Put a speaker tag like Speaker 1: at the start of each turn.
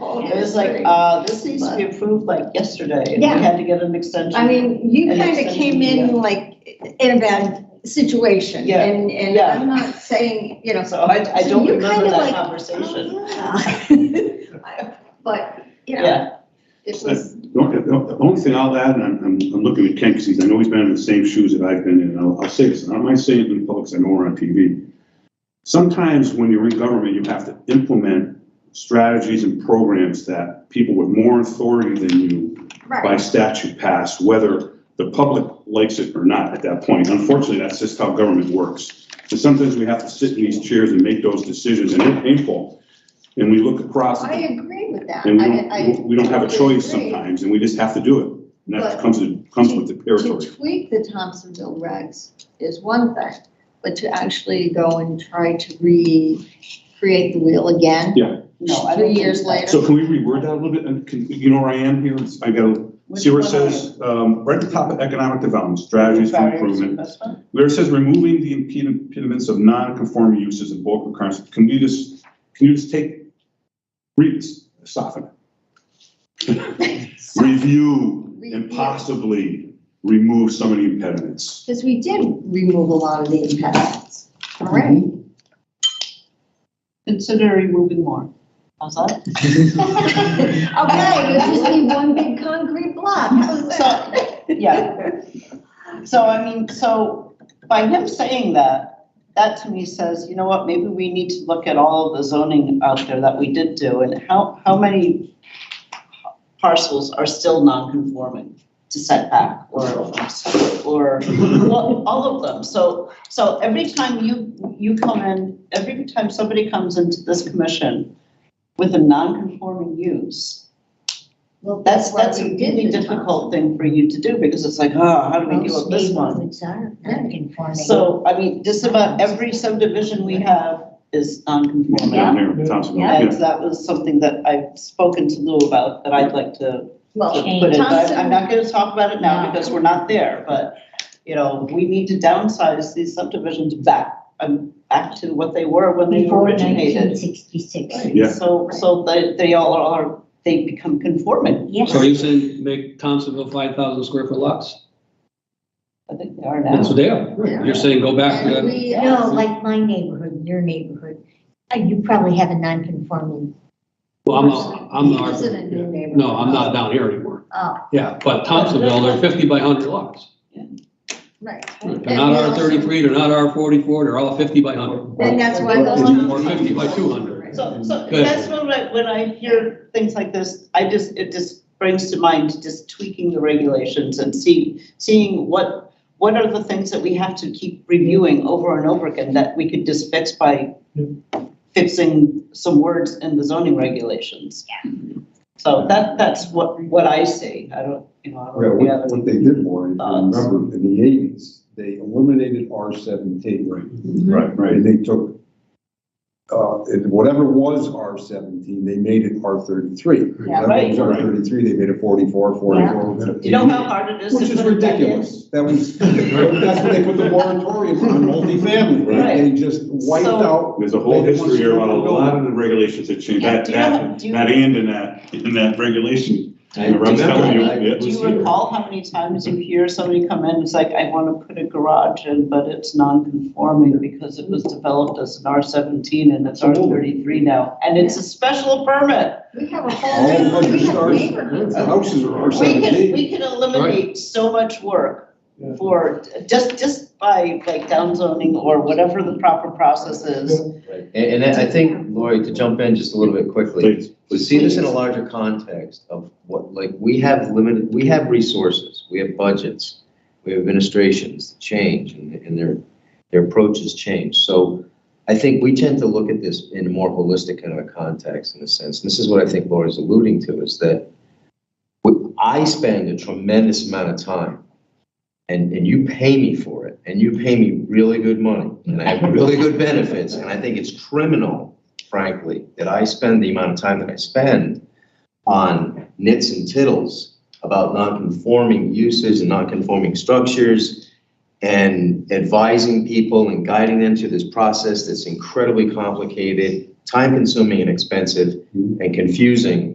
Speaker 1: all.
Speaker 2: It was like, uh, this needs to be approved like yesterday, and we
Speaker 1: Yeah.
Speaker 2: had to get an extension.
Speaker 1: I mean, you
Speaker 2: And
Speaker 1: kind of
Speaker 2: it's-
Speaker 1: came
Speaker 2: yeah.
Speaker 1: in like in a bad situation
Speaker 2: Yeah,
Speaker 1: and, and
Speaker 2: yeah.
Speaker 1: I'm not saying, you know.
Speaker 2: So I, I
Speaker 1: So
Speaker 2: don't
Speaker 1: you
Speaker 2: remember
Speaker 1: kinda
Speaker 2: that
Speaker 1: like,
Speaker 2: conversation.
Speaker 1: "Oh, yeah." But, you know,
Speaker 2: Yeah,
Speaker 1: it
Speaker 3: I-
Speaker 1: was,
Speaker 3: The only- the only thing I'll add, and I'm, I'm, I'm looking at Ken, because he's, I know he's been in the same shoes that I've been in, and I'll, I'll say this, and I don't mind saying it in public, 'cause I know we're on TV. Sometimes when you're in government, you have to implement strategies and programs that people with more authority than you by
Speaker 1: right,
Speaker 3: statute pass, whether the public likes it or not at that point. Unfortunately, that's just how government works. And sometimes we have to sit in these chairs and make those decisions, and they're painful. And we look across at
Speaker 1: I
Speaker 3: the
Speaker 1: agree with that.
Speaker 3: and we
Speaker 1: I- I
Speaker 3: don't, we don't have a choice
Speaker 1: totally agree.
Speaker 3: sometimes, and we just have to do it. And that
Speaker 1: But-
Speaker 3: comes, with- comes with the
Speaker 1: To
Speaker 3: territory.
Speaker 1: tweak the Thompsonville regs is one thing, but to actually go and try to recreate the wheel again.
Speaker 3: Yeah.
Speaker 2: No, I
Speaker 1: Three
Speaker 2: don't
Speaker 1: years
Speaker 2: think
Speaker 1: later.
Speaker 3: So can we reword that a little bit? And can, you know where I am here? It's- I go,
Speaker 2: Which
Speaker 3: see where it
Speaker 2: one
Speaker 3: says, um, right at the top of economic development, strategies for
Speaker 2: Barriers to
Speaker 3: improvement.
Speaker 2: investment?
Speaker 3: Where it says removing the impede- impediments of non-conforming uses and bulk requirements, can we just, can you just take, read, this, soften it? Review and
Speaker 1: Review.
Speaker 3: possibly remove some of the impediments.
Speaker 1: Because we did remove a lot of the impediments, all right?
Speaker 2: Consider removing more. How's that?
Speaker 1: Okay, you just need one big concrete block, how's that?
Speaker 2: Yeah. So I mean, so by him saying that, that to me says, you know what, maybe we need to look at all of the zoning out there that we did do and how, how many parcels are still non-conforming to setback or, or well, all of them. So, so every time you, you come in, every time somebody comes into this commission with a non-conforming use,
Speaker 1: Well,
Speaker 2: that's,
Speaker 1: why
Speaker 2: that's a
Speaker 1: we did
Speaker 2: really
Speaker 1: the
Speaker 2: difficult thing for you to do, because it's like, oh, how do we deal with this one? So, I mean, just about every subdivision we have is
Speaker 3: Down
Speaker 2: non-conforming.
Speaker 3: there, Thompson,
Speaker 4: Yeah.
Speaker 3: yeah.
Speaker 2: And that was something that I've spoken to Lou about, that I'd like to
Speaker 1: Well,
Speaker 2: to
Speaker 4: Change.
Speaker 2: put in. But
Speaker 1: Thompson-
Speaker 2: I'm not gonna talk about it now,
Speaker 4: No.
Speaker 2: because we're not there, but, you know, we need to downsize these subdivisions back, um, back to what they were when they
Speaker 4: Before
Speaker 2: originated.
Speaker 4: 1966.
Speaker 3: Yeah.
Speaker 2: So, so they, they all are, they become conforming,
Speaker 4: Yes,
Speaker 5: So are you saying make Thompsonville five thousand square foot lots?
Speaker 2: I think they are now.
Speaker 5: That's what they are.
Speaker 1: Yeah.
Speaker 5: You're saying go back to
Speaker 1: and
Speaker 5: that.
Speaker 1: we,
Speaker 4: no, like my neighborhood, your neighborhood, uh, you probably have a non-conforming.
Speaker 5: Well, I'm, not- I'm
Speaker 1: He lives in a new
Speaker 5: not,
Speaker 1: neighborhood.
Speaker 5: no, I'm not down here anymore.
Speaker 1: Oh,
Speaker 5: Yeah, but Thompsonville, they're fifty by hundred lots.
Speaker 1: right.
Speaker 5: They're not R thirty-three, they're not R forty-four, they're all fifty by hundred.
Speaker 1: Then that's why those.
Speaker 5: Or 50 by 200.
Speaker 6: Mm-hmm.
Speaker 2: So, so
Speaker 5: Good.
Speaker 2: that's when I, when I hear things like this, I just, it just brings to mind just tweaking the regulations and see, seeing what, what are the things that we have to keep reviewing over and over again that we could just fix by fixing some words in the zoning regulations. Yeah. So that, that's what, what I see. I don't, you know, I
Speaker 6: Yeah,
Speaker 2: don't, yeah, Uh,
Speaker 6: what, what they did, Warren, if you
Speaker 2: Thoughts?
Speaker 6: remember, in the eighties, they eliminated R seventeen. Right.
Speaker 3: Right, right.
Speaker 6: And they took, uh, and whatever was R seventeen, they made it R thirty-three.
Speaker 2: Yeah,
Speaker 6: Whatever was R thirty-three, they made it forty-four, forty-four.
Speaker 2: you know how hard it is to
Speaker 6: Which is
Speaker 2: put it back in?
Speaker 6: ridiculous. That was, that's when they put the moratorium on multifamily,
Speaker 2: Right.
Speaker 6: right? They just wiped
Speaker 2: So-
Speaker 6: out.
Speaker 3: There's a whole
Speaker 6: They
Speaker 3: history here about a
Speaker 6: want to-
Speaker 3: lot of the regulations that change,
Speaker 2: Yeah,
Speaker 3: that,
Speaker 2: do you have-
Speaker 3: that,
Speaker 2: do you-
Speaker 3: that and in that, in that regulation.
Speaker 6: I
Speaker 3: Remember, I was
Speaker 6: remember
Speaker 3: telling you,
Speaker 6: that.
Speaker 3: yeah.
Speaker 2: Do you recall how many times you hear somebody come in, it's like, I want to put a garage in, but it's non-conforming because it was developed as an R seventeen and it's R thirty-three now, and it's a special permit.
Speaker 1: We have a
Speaker 6: All
Speaker 1: whole,
Speaker 6: hundred
Speaker 1: we have
Speaker 6: stars.
Speaker 1: neighborhoods.
Speaker 6: The houses are R
Speaker 2: We can,
Speaker 6: seventeen.
Speaker 2: we can eliminate so much work for, just, just by like downzoning or whatever the proper process is.
Speaker 7: Right, and, and I think, Lori, to jump in just a little bit quickly,
Speaker 3: Please.
Speaker 7: we see this in a larger context of what, like, we have limited, we have resources, we have budgets, we have administrations that change, and, and their, their approaches change, so I think we tend to look at this in a more holistic kind of a context, in a sense, and this is what I think Lori's alluding to, is that we- I spend a tremendous amount of time, and, and you pay me for it, and you pay me really good money, and I have really good benefits, and I think it's criminal, frankly, that I spend the amount of time that I spend on nits and tittles about non-conforming uses and non-conforming structures, and advising people and guiding them through this process that's incredibly complicated, time-consuming and expensive, and confusing,